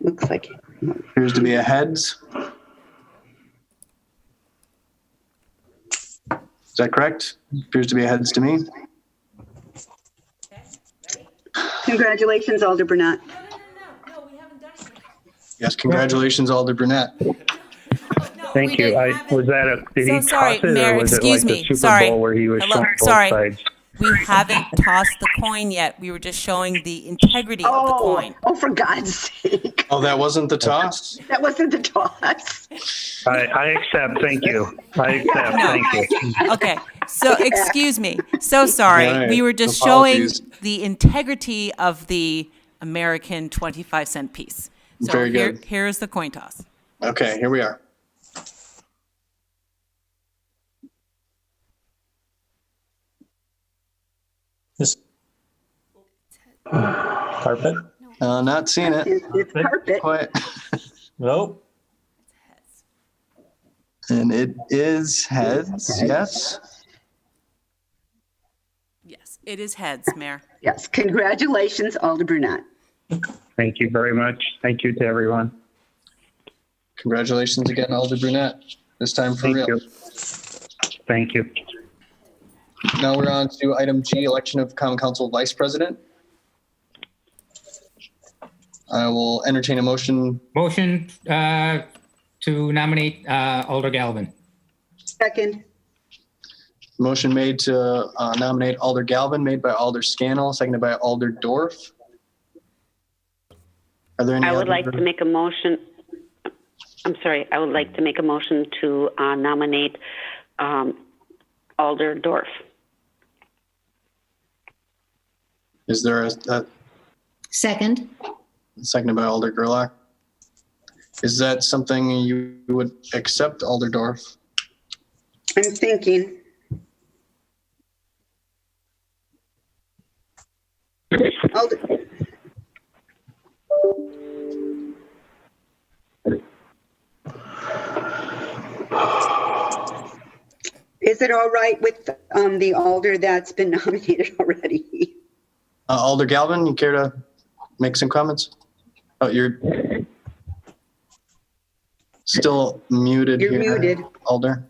Looks like it. Appears to be a heads. Is that correct? Appears to be a heads to me. Congratulations, Alder Burnett. No, no, no, no, no, we haven't done it Yes, congratulations, Alder Burnett. yet. No, we Thank you. didn't I have it. was that a did So he sorry, toss it Mayor, or was it excuse like me. the Super Sorry. Bowl where he was Hello, showing both sorry. sides? We haven't tossed the coin yet. We were just showing the integrity of the Oh, coin. oh, for God's sake. Oh, that wasn't the toss? That wasn't the toss. I, I accept. Thank you. I accept. No. Thank you. Okay, so excuse me. So sorry. Right. We were just showing Apologies. the integrity of the American 25 cent piece. So Very here- good. Here is the coin toss. Okay, here we are. This carpet? Uh, not seeing it It's it's carpet. quite. Nope. And it is heads, yes? Yes, it is heads, Mayor. Yes, congratulations, Alder Burnett. Thank you very much. Thank you to everyone. Congratulations again, Alder Brunette. This time for Thank real. you. Thank you. Now we're on to item G, election of common council vice president. I will entertain a motion. Motion uh, to nominate uh, Alder Galvin. Second, Motion made to uh, nominate Alder Galvin, made by Alder Scannell, seconded by Alder Dorf. Are there any? I would other- like to make a motion, I'm sorry, I would like to make a motion to uh, nominate um, Alder Dorf. Is there a, a Second, seconded by Alder Gerlach? Is that something you would accept, Alder Dorf? I'm thinking. Alder, Is it all right with um, the Alder that's been nominated already? Uh, Alder Galvin, you care to make some comments? Oh, you're still muted You're here. muted. Alder.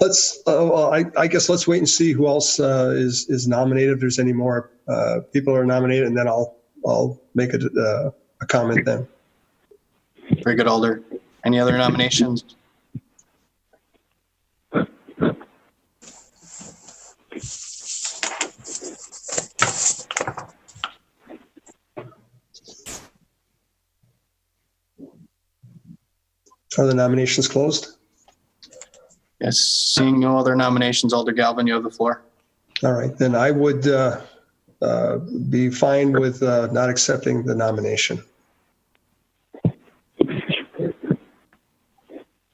Let's, uh, well, I, I guess let's wait and see who else uh, is, is nominated. If there's any more uh, people are nominated, and then I'll, I'll make a, uh, a comment then. Very good, Alder. Any other nominations? Are the nominations closed? Yes, seeing no other nominations, Alder Galvin, you have the floor. All right, then I would uh, uh, be fine with uh, not accepting the nomination.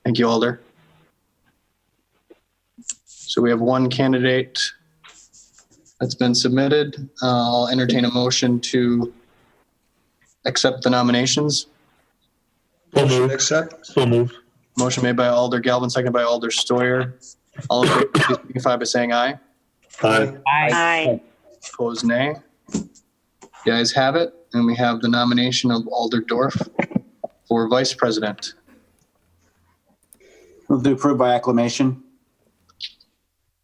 Thank you, Alder. So we have one candidate that's been submitted. Uh, I'll entertain a motion to accept the nominations. Motion to accept? So moved. Motion made by Alder Galvin, second by Alder Steuer. All in favor, please signify by saying aye. Aye. Aye. Aye. Opposed, nay. The ayes have it, and we have the nomination of Alder Dorf for vice president. Move to approve by acclamation.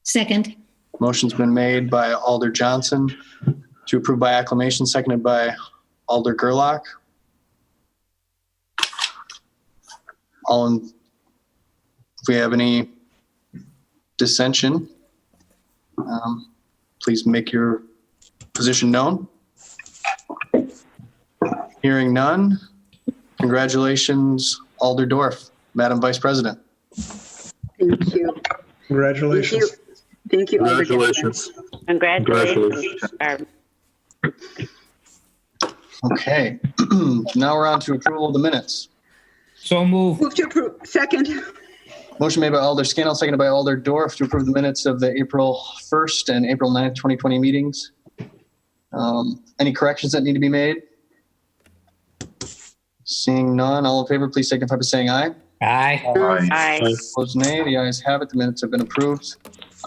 second, Motion's been made by Alder Johnson to approve by acclamation, seconded by Alder Gerlach. All in, if we have any dissension, um, please make your position known. Hearing none, congratulations, Alder Dorf, Madam Vice President. Thank you. Thank you. Congratulations. Thank you. Alder Galvin. Congratulations. Barb. Okay, now we're on to approval of the minutes. So move. Move to approve. Second, Motion made by Alder Scannell, seconded by Alder Dorf to approve the minutes of the April 1st and April 9th, 2020 meetings. Um, Any corrections that need to be made? Seeing none, all in favor, please signify by saying aye. Aye. Aye. Opposed, nay. The ayes have it. The minutes have been approved.